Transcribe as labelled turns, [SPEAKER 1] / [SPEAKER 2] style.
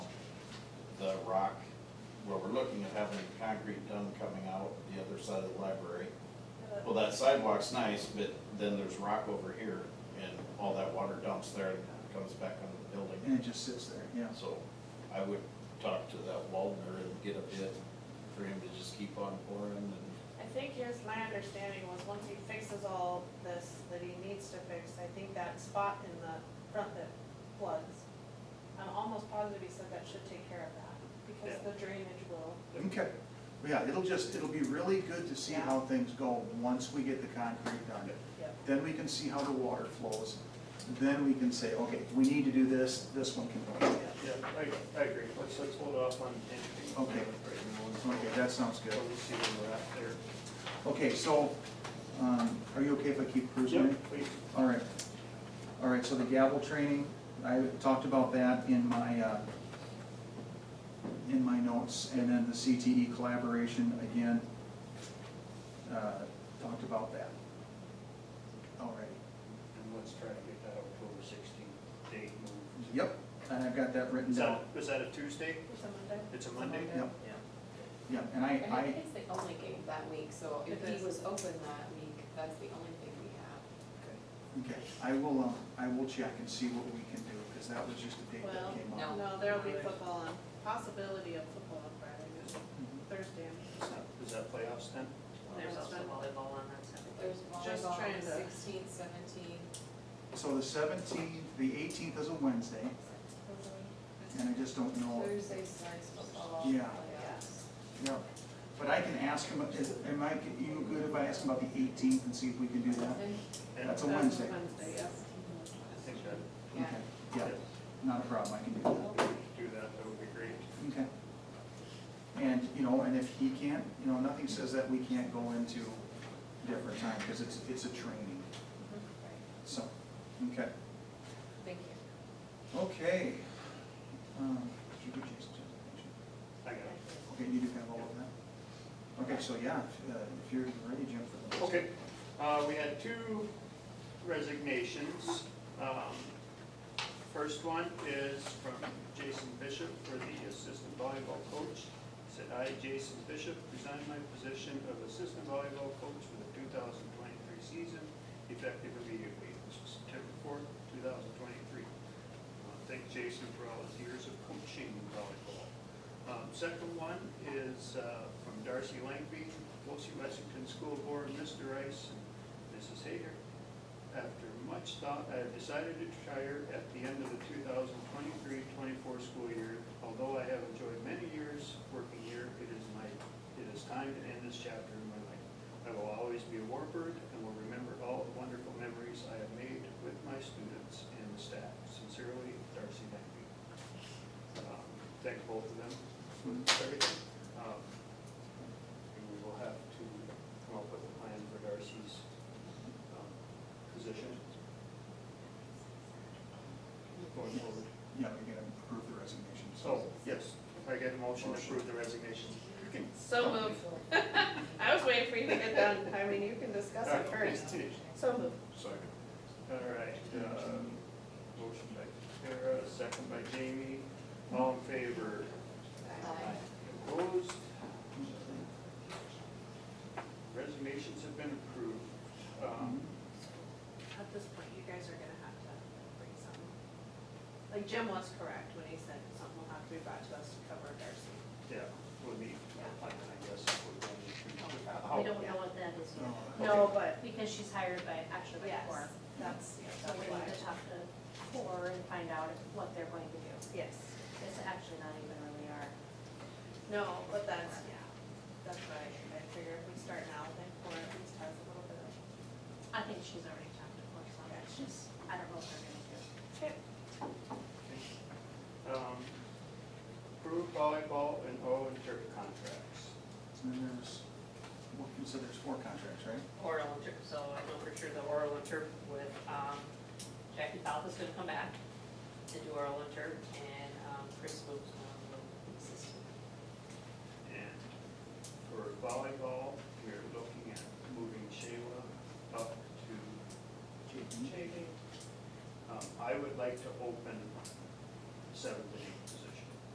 [SPEAKER 1] rock, well, we're looking at having concrete done coming out the other side of the library. Well, that sidewalk's nice, but then there's rock over here and all that water dumps there and comes back onto the
[SPEAKER 2] And it
[SPEAKER 1] building.
[SPEAKER 2] just sits there, yeah.
[SPEAKER 1] So I would talk to that Waldner and get a bid for him to just keep on pouring and
[SPEAKER 3] I think here's my understanding was once he fixes all this that he needs to fix, I think that spot in the front that floods, I'm almost positive he said that should take care of that, because
[SPEAKER 4] Yeah.
[SPEAKER 3] the drainage will,
[SPEAKER 2] Okay, yeah, it'll just, it'll be really good to see how things go once we get the concrete done.
[SPEAKER 3] yep.
[SPEAKER 2] Then we can see how the water flows, then we can say, okay, we need to do this, this one can go.
[SPEAKER 4] Yeah, I, I agree, let's, let's hold off on entering.
[SPEAKER 2] Okay. Okay, that sounds good.
[SPEAKER 4] We'll see when we're out there.
[SPEAKER 2] Okay, so, um, are you okay if I keep cruising?
[SPEAKER 4] Yep, please.
[SPEAKER 2] All right, all right, so the gavel training, I talked about that in my, uh, in my notes, and then the CTE collaboration, again, uh, talked about that. All right,
[SPEAKER 4] And let's try to get that October sixteenth date moved.
[SPEAKER 2] yep, and I've got that written
[SPEAKER 4] Is
[SPEAKER 2] down.
[SPEAKER 4] that, is that a Tuesday?
[SPEAKER 3] It's a Monday.
[SPEAKER 4] It's a Monday?
[SPEAKER 2] Yep, yeah, and
[SPEAKER 5] And I
[SPEAKER 2] I,
[SPEAKER 5] think it's the only game that week, so if he was open that week, that's the only thing we have.
[SPEAKER 2] I, okay, I will, um, I will check and see what we can do, because that was just a date that
[SPEAKER 3] Well,
[SPEAKER 2] came
[SPEAKER 5] no.
[SPEAKER 2] up.
[SPEAKER 3] No, there'll be football on, possibility of football on Friday,
[SPEAKER 2] Mm-hmm.
[SPEAKER 3] Thursday.
[SPEAKER 4] Is that- Is that playoffs then?
[SPEAKER 6] There's also volleyball on that Saturday.
[SPEAKER 5] There's
[SPEAKER 3] Just
[SPEAKER 5] volleyball
[SPEAKER 3] trying
[SPEAKER 5] on
[SPEAKER 3] to-
[SPEAKER 5] sixteen, seventeen,
[SPEAKER 2] So the seventeenth, the eighteenth is a Wednesday, and I just don't know.
[SPEAKER 5] Thursday starts football Oh,
[SPEAKER 2] Yeah.
[SPEAKER 5] playoffs.
[SPEAKER 2] Yeah, but I can ask him, is, am I, you good if I ask him about the eighteenth and see if we can do that?
[SPEAKER 5] And-
[SPEAKER 4] And
[SPEAKER 2] That's a
[SPEAKER 3] That's
[SPEAKER 2] Wednesday.
[SPEAKER 3] Wednesday, yes.
[SPEAKER 4] I think that,
[SPEAKER 5] Yeah.
[SPEAKER 2] Okay, Yeah, not a problem, I can do
[SPEAKER 4] if
[SPEAKER 2] that,
[SPEAKER 4] we could do that, that would be great.
[SPEAKER 2] okay. And, you know, and if he can't, you know, nothing says that we can't go into different time, because it's, it's a training,
[SPEAKER 5] Right.
[SPEAKER 2] so, okay.
[SPEAKER 5] Thank you.
[SPEAKER 2] Okay. Um, did you get Jason's presentation?
[SPEAKER 4] I got it.
[SPEAKER 2] Okay, you do have all of that? Okay, so yeah, if, uh, if you're ready, Jim, for the.
[SPEAKER 4] Okay, uh, we had two resignations. Um, First one is from Jason Bishop for the assistant volleyball coach. Said I, Jason Bishop, resign my position of assistant volleyball coach for the two thousand twenty-three season, effective immediately, This was September fourth, two thousand twenty-three. Uh, Thank Jason for all his years of coaching volleyball. Um, Second one is uh, from Darcy Langby, Wolsey Lexington School Board, Mr. Rice and Mrs. Hager. After much thought, I have decided to retire at the end of the 2023-24 school year. Although I have enjoyed many years working here, it is my, it is time to end this chapter in my life. I will always be a Warbird and will remember all the wonderful memories I have made with my students and the staff. Sincerely, Darcy Langby. Um, Thank both of them for everything. Um, And we will have to come up with a plan for Darcy's um, position going forward.
[SPEAKER 2] Yeah, we're gonna approve the resignation, so.
[SPEAKER 4] So, yes, if I get a motion to approve the resignation. you can-
[SPEAKER 3] So moved. I was waiting for you to get done. I mean, you can discuss it first. So moved.
[SPEAKER 1] Second.
[SPEAKER 4] All right, uh, motion by Kara, second by Jamie, all in favor,
[SPEAKER 3] Uh,
[SPEAKER 5] Aye.
[SPEAKER 4] opposed? Resignations have been approved. Um,
[SPEAKER 3] At this point, you guys are gonna have to bring some, like Jim was correct when he said something will have to be brought to us to cover Darcy.
[SPEAKER 6] Mm-hmm.
[SPEAKER 4] Yeah, we'll need a plan, I guess, if we're going to. how-
[SPEAKER 6] We don't know what that is
[SPEAKER 2] No.
[SPEAKER 6] yet,
[SPEAKER 3] No, but,
[SPEAKER 6] because she's hired by, actually by
[SPEAKER 3] yes,
[SPEAKER 6] Core.
[SPEAKER 3] that's, yeah,
[SPEAKER 6] So
[SPEAKER 3] that's
[SPEAKER 6] we
[SPEAKER 3] why.
[SPEAKER 6] need to talk to Core and find out what they're going to do.
[SPEAKER 3] Yes,
[SPEAKER 6] It's actually not even really our,
[SPEAKER 3] no, but that's, yeah, that's why I figure if we start now, then Cora at least has a little bit of.
[SPEAKER 6] I think she's already talked to Core, so it's just, I don't know what they're gonna do.
[SPEAKER 4] Um, Approve volleyball and O and turf contracts.
[SPEAKER 2] And then there's, what, you said there's four contracts, right?
[SPEAKER 7] oral inter, so I know for sure the oral inter with, um, Jackie Falk is gonna come back to do oral inter, and, um, Chris um, Luke's gonna assist.
[SPEAKER 4] And for volleyball, we're looking at moving Shayla up to JV. Um, I would like to open seven